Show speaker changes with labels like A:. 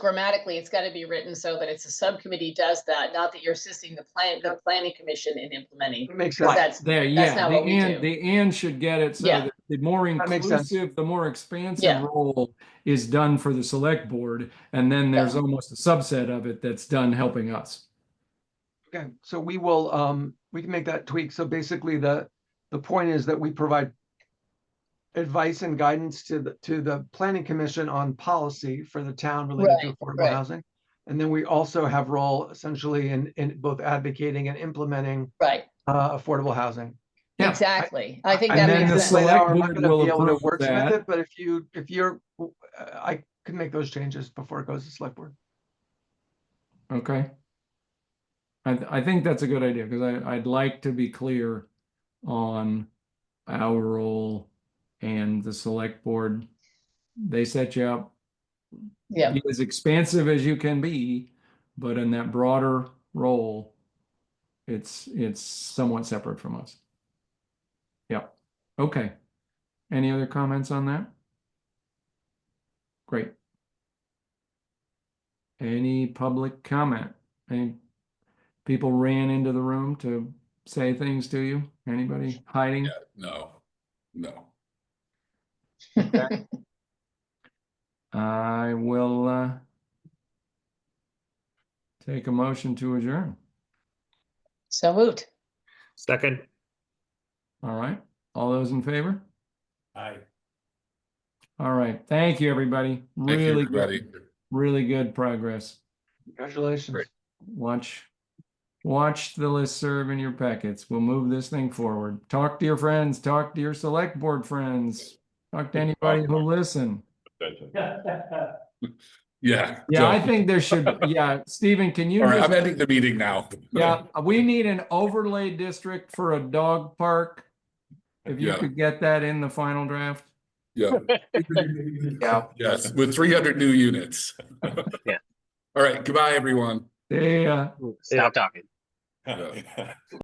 A: grammatically, it's gotta be written so that it's a subcommittee does that, not that you're assisting the plan, the planning commission in implementing.
B: Makes
A: Because
B: sense.
A: that's,
C: There,
A: That's
C: yeah,
A: not
C: the
A: what we do.
C: and, the and should get it so
A: Yeah.
C: that the more
B: That makes sense.
C: inclusive, the more expansive
A: Yeah.
C: role is done for the select board. And then there's almost a subset of it that's done helping us.
B: Okay, so we will, um, we can make that tweak. So basically the, the point is that we provide advice and guidance to the, to the planning commission on policy for the town related to affordable
A: right.
B: housing. And then we also have role essentially in, in both advocating and implementing,
A: right,
B: uh, affordable housing.
C: Yeah, I-
A: exactly. I think
B: I-
A: that
C: and then
A: makes
C: the
A: sense.
C: select-
B: Now, I'm not
C: board
B: gonna
C: will
B: be able to
C: approve
B: wordsmith
C: that.
B: it, But if you, if you're, uh, I can make those changes before it goes to select board.
C: Okay. I, th- I think that's a good idea because I, I'd like to be clear on our role and the select board. They set you up.
A: Yeah,
C: be as expansive as you can be, but in that broader role, it's, it's somewhat separate from us. Yep, okay. Any other comments on that? Great. Any public comment? Any people ran into the room to say things to you? Anybody hiding?
D: No, no.
C: I will, uh, take a motion to adjourn.
A: so moved.
E: Second,
C: All right, all those in favor?
D: Aye.
C: All right, thank you, everybody.
D: Thank you,
C: Really,
D: everybody.
C: good, really good progress.
B: Congratulations.
D: Great.
C: Watch, watch the listserv in your packets. We'll move this thing forward. Talk to your friends, talk to your select board friends. Talk to anybody who listen.
D: Yeah.
C: Yeah, I
D: so-
C: think there should, yeah, Stephen, can you?
D: All right,
C: just-
D: I'm ending the meeting now.
C: Yeah, we need an overlay district for a dog park. If you
D: Yeah.
C: could get that in the final draft.
D: Yeah.
C: Yeah.
D: Yes, with three hundred new units.
E: Yeah.
D: All right, goodbye, everyone.
C: Yeah.
E: stop talking.
D: Yeah.